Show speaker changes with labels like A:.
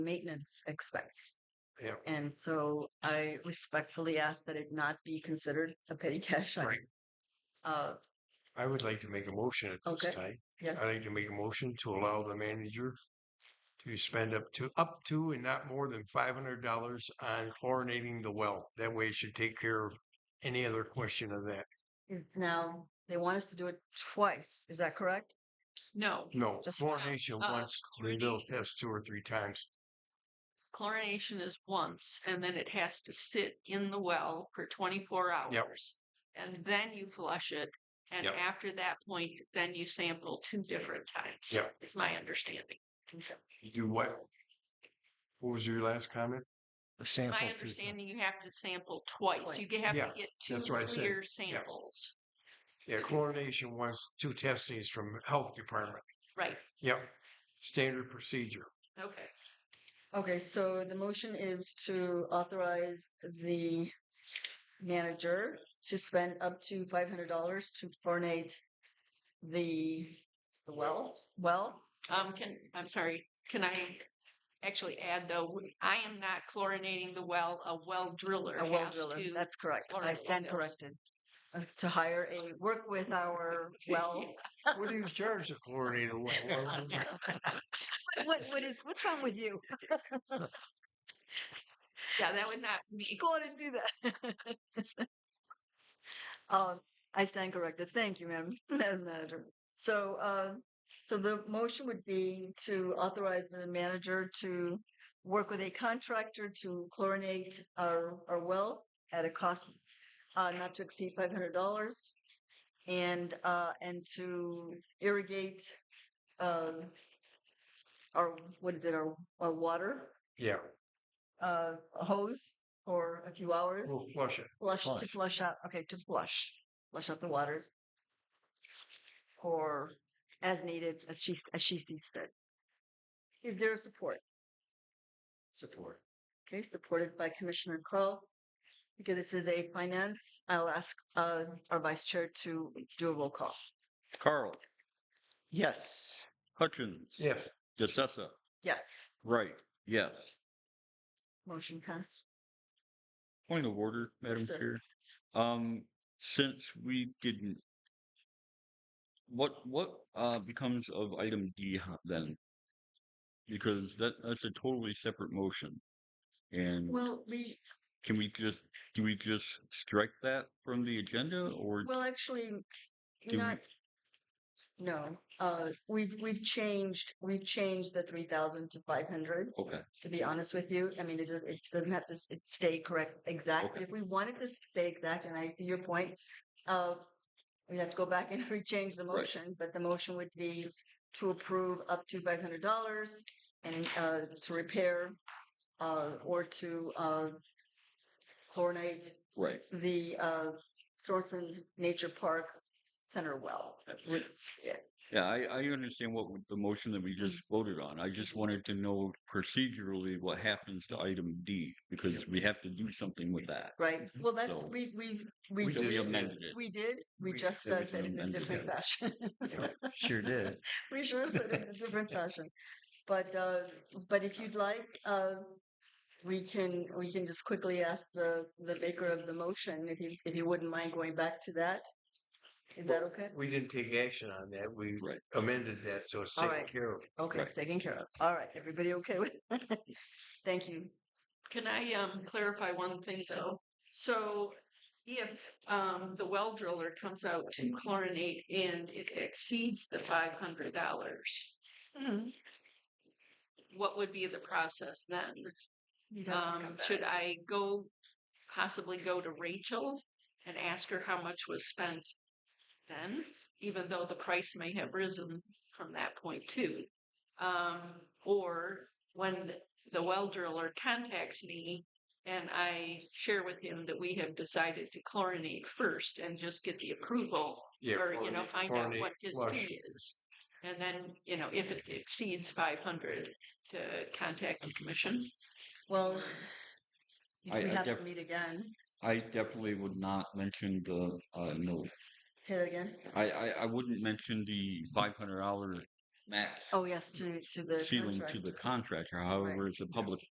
A: maintenance expense.
B: Yeah.
A: And so I respectfully ask that it not be considered a petty cash item.
B: Right.
A: Uh,
B: I would like to make a motion at
A: Okay.
B: this time.
A: yes,
B: I'd like to make a motion to allow the manager to spend up to, up to and not more than five hundred dollars on chlorinating the well. That way it should take care of any other question of that.
A: Is- now they want us to do it twice. Is that correct?
C: No,
B: No,
C: Just-
B: chlorination
C: uh,
B: once, they will
C: chlorination.
B: test two or three times.
C: chlorination is once, and then it has to sit in the well for twenty-four hours. And then you flush it, and
B: Yep.
C: after that point, then you sample two different times.
B: Yep.
C: Is my understanding.
B: You do what? What was your last comment?
C: My understanding, you have to sample twice. You have
B: Yeah,
C: to get two
B: that's what I said.
C: clear samples.
B: Yeah, chlorination once, two testings from health department.
C: Right,
B: Yep, standard procedure.
C: okay.
A: Okay, so the motion is to authorize the manager to spend up to five hundred dollars to chlorinate the the well, well,
C: Um, can, I'm sorry, can I actually add though, w- I am not chlorinating the well, a well driller
A: a well
C: has
A: driller.
C: to.
A: That's correct. I
C: chlorinate
A: stand
C: those.
A: corrected. Uh, To hire a, work with our well
B: What do you charge the chlorinated well?
A: What what is what's wrong with you?
C: Yeah, that would not be,
A: Just go on and do that. um, I stand corrected. Thank you, ma'am, Madam Manager. So, uh, so the motion would be to authorize the manager to work with a contractor to chlorinate our our well at a cost uh, not to exceed five hundred dollars, and uh, and to irrigate. Um, our what is it? Our, our water
B: Yeah,
A: uh, a hose for a few hours.
B: we'll flush it.
A: Flush, to
B: flush.
A: flush out, okay, to flush, flush out the waters. Or as needed, as she, as she sees fit. Is there support?
B: Support.
A: Okay, supported by Commissioner Kroll. Because this is a finance, I'll ask uh, our vice chair to do a roll call.
D: Carl,
B: Yes.
D: Hutchins,
B: Yes.
D: DeSessa,
A: Yes,
D: Wright, yes.
A: motion passed.
D: Point of order, Madam
A: Yes, sir.
D: Chair. Um, since we didn't, what, what, uh, becomes of item D ho- then? Because that, that's a totally separate motion. And
A: Well, we,
D: can we just, do we just strike that from the agenda or?
A: well, actually,
D: do we-
A: not, no, uh, we've, we've changed, we've changed the three thousand to five hundred.
D: Okay,
A: to be honest with you. I mean, it, does- it doesn't have to s- it stay correct exact.
D: Okay.
A: If we wanted to stay exact, and I see your point, uh, we'd have to go back and rechange the
D: Right.
A: motion, but the motion would be to approve up to five hundred dollars and, uh, to repair, uh, or to, uh, chlorinate
D: right.
A: the, uh, Sorenson Nature Park Center well.
D: That's-
A: Would- yeah.
D: Yeah, I, I understand what w- the motion that we just voted on. I just wanted to know procedurally what happens to item D because we have to do something with that.
A: Right, well, that's,
D: Mm-hmm. So-
A: we, we, we
B: We
D: So we
B: just
A: did,
D: amended it.
A: we did, we
B: We
A: just
D: did
A: uh,
D: it
A: said it in a
D: amended
A: different
D: it.
A: fashion.
B: Sure did.
A: We sure said it in a different fashion. But, uh, but if you'd like, uh, we can, we can just quickly ask the, the maker of the motion, if you, if you wouldn't mind going back to that. Is that okay?
B: We didn't take action on that. We
D: Right.
B: amended that, so it's
A: All
B: taken
A: right.
B: care of.
A: Okay,
D: Right.
A: it's taken care of. All right, everybody okay with? Thank you.
C: can I, um, clarify one thing though? So if, um, the well driller comes out to chlorinate and it exceeds the five hundred dollars,
A: Mm-hmm.
C: what would be the process then?
A: You'd have to come
C: Um,
A: back.
C: should I go, possibly go to Rachel and ask her how much was spent then, even though the price may have risen from that point too? Um, or when the well driller contacts me and I share with him that we have decided to chlorinate first and just get the approval
B: Yeah.
C: or, you know,
B: chlorinate-
C: find out
B: chlorinate
C: what his
B: flush.
C: fee is. And then, you know, if it exceeds five hundred, to contact the commission.
A: Well,
D: Um, I-
A: we
D: I
A: have to
D: def-
A: meet again.
D: I definitely would not mention the, uh, no,
A: Say that again?
D: I, I, I wouldn't mention the five hundred dollar max
A: Oh, yes, to, to the
D: ceiling to
A: contract.
D: the contractor, however, it's a public